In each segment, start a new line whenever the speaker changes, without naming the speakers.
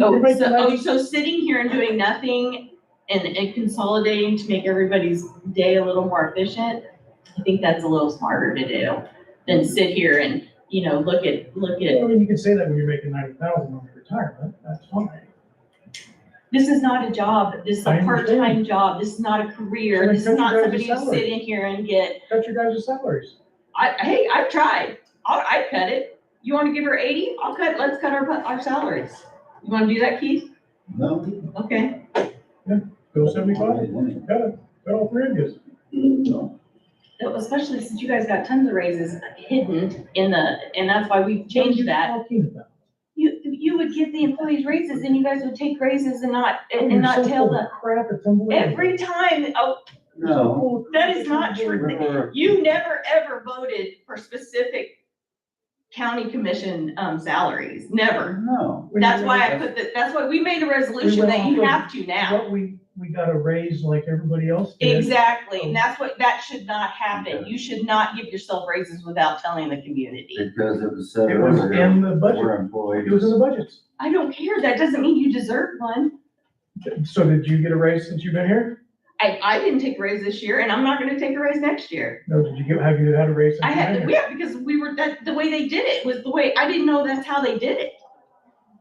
Oh,
Everybody
so, oh,
providing-
so sitting here and doing nothing and, and consolidating to make everybody's day a little more efficient, I think that's a little smarter to do than sit here and, you know, look at, look at,
I mean, you can say that when you're making ninety thousand on your retirement, that's fine.
this is not a job, this is
I
a
understand.
part-time job, this is not a career, this is
So then cut your
not
guys'
somebody who
salary.
sit in here and get,
Cut your guys' salaries.
I, hey, I've tried, I'll, I'd cut it. You wanna give her eighty? I'll cut, let's cut our, our salaries. You wanna do that, Keith?
No.
Okay,
Go seventy-five,
No.
cut it, cut all three of you.
especially since you guys got tons of raises hidden in the, and that's why we changed that. You, you would give the employees raises and you guys would take raises and not, and and not tell them.
Crap, it's unbelievable.
Every time, oh,
No.
that is not true.
Remember,
You never, ever voted for specific county commission, um, salaries, never.
no.
That's why I put that, that's why we made a resolution that you have to now.
But we, we got a raise like everybody else did.
Exactly, and that's what, that should not happen. You should not give yourself raises without telling the community.
Because it was said
It was
earlier,
in the budget,
we're employees.
it was in the budgets.
I don't care, that doesn't mean you deserve one.
So did you get a raise since you've been here?
I, I didn't take a raise this year and I'm not gonna take a raise next year.
No, did you get, have you had a raise since
I
you've been
had,
here?
yeah, because we were, that, the way they did it was the way, I didn't know that's how they did it.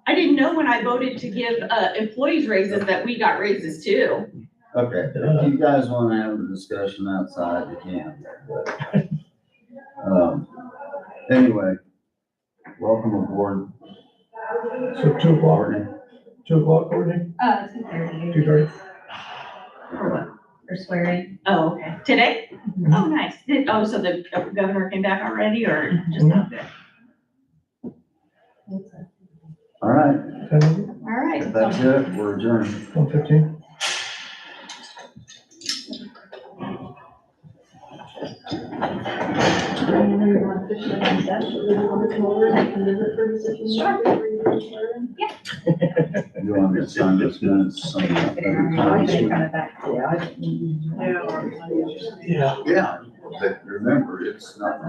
I didn't know when I voted to give, uh, employees raises that we got raises too.
Okay, if you guys wanna have a discussion outside, you can. but, um, Anyway, welcome aboard,
So two o'clock,
Courtney.
two o'clock, Courtney,
Uh, two thirty.
two thirty.
For swearing.
Oh, okay. Today?
Mhm.
Oh, nice. Did, oh, so the governor came back already or just not there?
All right,
Ten,
All right.
if that's it, we're adjourned.
one fifteen.
You want me to sign this minutes, sign that other
I should have
comments?
gone back to the-
Yeah.
Yeah, but remember, it's not,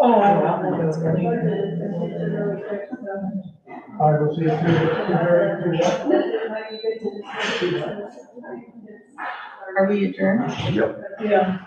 Oh, I will see you through.
Are we adjourned?
yep,
Yeah.